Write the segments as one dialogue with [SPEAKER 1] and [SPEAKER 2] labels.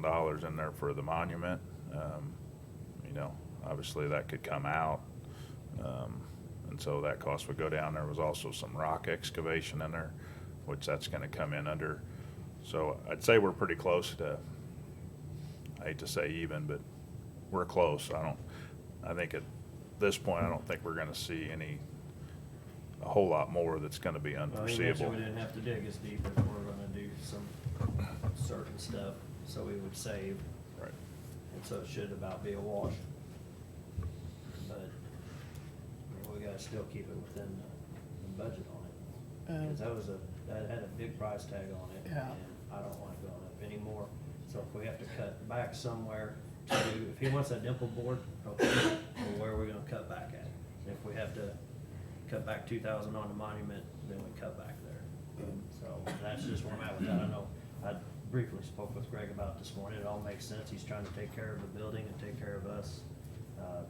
[SPEAKER 1] thousand dollars in there for the monument. Um, You know, obviously that could come out. Um, And so that cost would go down. There was also some rock excavation in there, which that's gonna come in under. So I'd say we're pretty close to, I hate to say even, but we're close. I don't, I think at this point, I don't think we're gonna see any, a whole lot more that's gonna be
[SPEAKER 2] Well, he mentioned
[SPEAKER 1] unforeseeable.
[SPEAKER 2] we didn't have to dig as deep if we're gonna do some certain stuff, so we would save,
[SPEAKER 1] Right.
[SPEAKER 2] and so it should about be a wash. But, I mean, we gotta still keep it within the, the budget on it,
[SPEAKER 3] Um,
[SPEAKER 2] cause that was a, that had a big price tag on it.
[SPEAKER 3] Yeah.
[SPEAKER 2] And I don't wanna go up anymore, so if we have to cut back somewhere to, do- if he wants a dimple board, okay, well, where are we gonna cut back at? If we have to cut back two thousand on the monument, then we cut back there. So that's just where I'm at with that. I know, I briefly spoke with Greg about it this morning. It all makes sense. He's trying to take care of the building and take care of us. uh,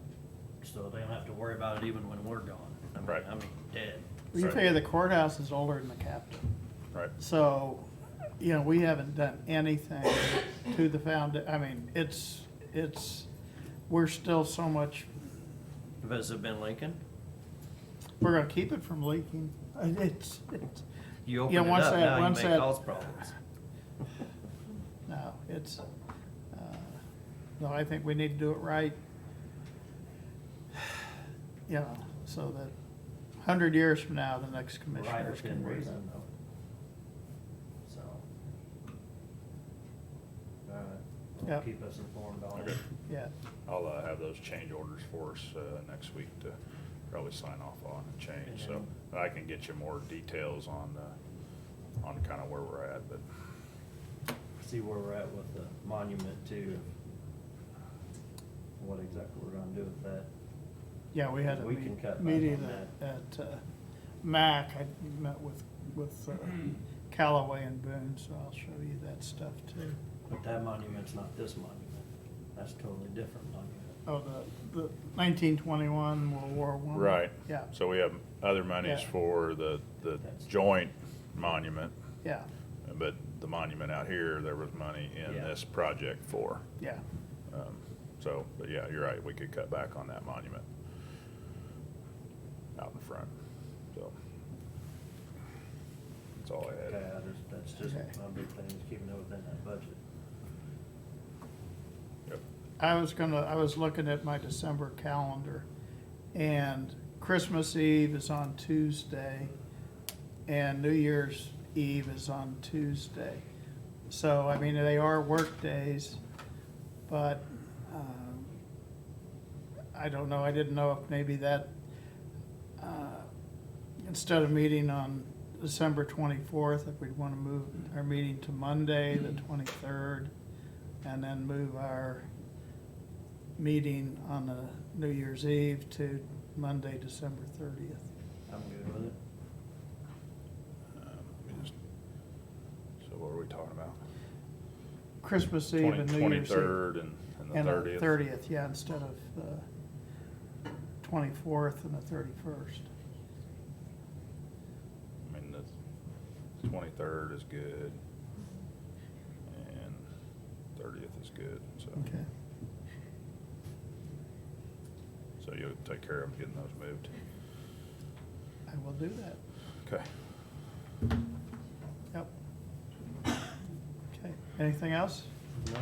[SPEAKER 2] So they don't have to worry about it even when we're gone. I mean-
[SPEAKER 1] Right.
[SPEAKER 2] I mean, dead.
[SPEAKER 3] You figure the courthouse is older than the capitol.
[SPEAKER 1] Right,
[SPEAKER 3] So, you know, we haven't done anything to the found, I mean, it's, it's, we're still so much,
[SPEAKER 2] Has it been Lincoln?
[SPEAKER 3] we're gonna keep it from leaking. Uh, It's, it's,
[SPEAKER 2] You
[SPEAKER 3] Yeah,
[SPEAKER 2] open it
[SPEAKER 3] once
[SPEAKER 2] up,
[SPEAKER 3] that-
[SPEAKER 2] now you
[SPEAKER 3] once
[SPEAKER 2] make
[SPEAKER 3] that-
[SPEAKER 2] all problems.
[SPEAKER 3] no, it's, uh, no, I think we need to do it right. You know, so that hundred years from now, the next
[SPEAKER 2] Right
[SPEAKER 3] commissioners
[SPEAKER 2] within
[SPEAKER 3] can read
[SPEAKER 2] reason
[SPEAKER 3] it.
[SPEAKER 2] though. So. All right, well,
[SPEAKER 3] Yep.
[SPEAKER 2] keep us informed on it.
[SPEAKER 1] Okay.
[SPEAKER 3] Yeah,
[SPEAKER 1] I'll uh, have those change orders for us uh, next week to probably sign off on and change, so that I can get you more details on, uh, on kind of where we're at, but,
[SPEAKER 2] see where we're at with the monument too. What exactly we're gonna do with that.
[SPEAKER 3] Yeah, we had a
[SPEAKER 2] We can
[SPEAKER 3] meet-
[SPEAKER 2] cut back
[SPEAKER 3] meeting
[SPEAKER 2] on
[SPEAKER 3] at, at uh, MAC, I met with, with uh, Callaway and Boone, so I'll show you that stuff too.
[SPEAKER 2] But that monument's not this monument. That's totally different monument.
[SPEAKER 3] Oh, the, the nineteen twenty-one World War One.
[SPEAKER 1] right.
[SPEAKER 3] Yeah,
[SPEAKER 1] So we have other monies
[SPEAKER 3] Yeah.
[SPEAKER 1] for the, the
[SPEAKER 2] That's-
[SPEAKER 1] joint monument,
[SPEAKER 3] yeah,
[SPEAKER 1] but the monument out here, there was money in
[SPEAKER 2] Yeah.
[SPEAKER 1] this project for.
[SPEAKER 3] yeah,
[SPEAKER 1] Um, So, but yeah, you're right, we could cut back on that monument out in front, so. That's all I had.
[SPEAKER 2] Okay, I just, that's just
[SPEAKER 3] Okay.
[SPEAKER 2] my big thing, is keeping it within that budget.
[SPEAKER 1] Yep.
[SPEAKER 3] I was gonna, I was looking at my December calendar, and Christmas Eve is on Tuesday, and New Year's Eve is on Tuesday. So, I mean, they are work days, but, um, I don't know, I didn't know if maybe that, uh, instead of meeting on December twenty-fourth, if we'd wanna move our meeting to Monday, the twenty-third, and then move our meeting on the New Year's Eve to Monday, December thirtieth.
[SPEAKER 2] I'm good with it.
[SPEAKER 1] Um, let me just- So what are we talking about?
[SPEAKER 3] Christmas Eve and
[SPEAKER 1] Twenty,
[SPEAKER 3] New Year's Eve.
[SPEAKER 1] twenty-third and, and
[SPEAKER 3] And
[SPEAKER 1] the
[SPEAKER 3] the
[SPEAKER 1] thirtieth?
[SPEAKER 3] thirtieth, yeah, instead of the twenty-fourth and the thirty-first.
[SPEAKER 1] I mean, the twenty-third is good. And thirtieth is good, so.
[SPEAKER 3] Okay.
[SPEAKER 1] So you'll take care of getting those moved.
[SPEAKER 3] I will do that.
[SPEAKER 1] Okay.
[SPEAKER 3] Yep. Okay. Anything else?
[SPEAKER 2] No?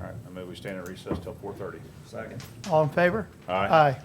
[SPEAKER 1] All right, I move we stand at recess till four-thirty.
[SPEAKER 2] Second.
[SPEAKER 3] All in favor?
[SPEAKER 1] Aye.
[SPEAKER 3] Aye.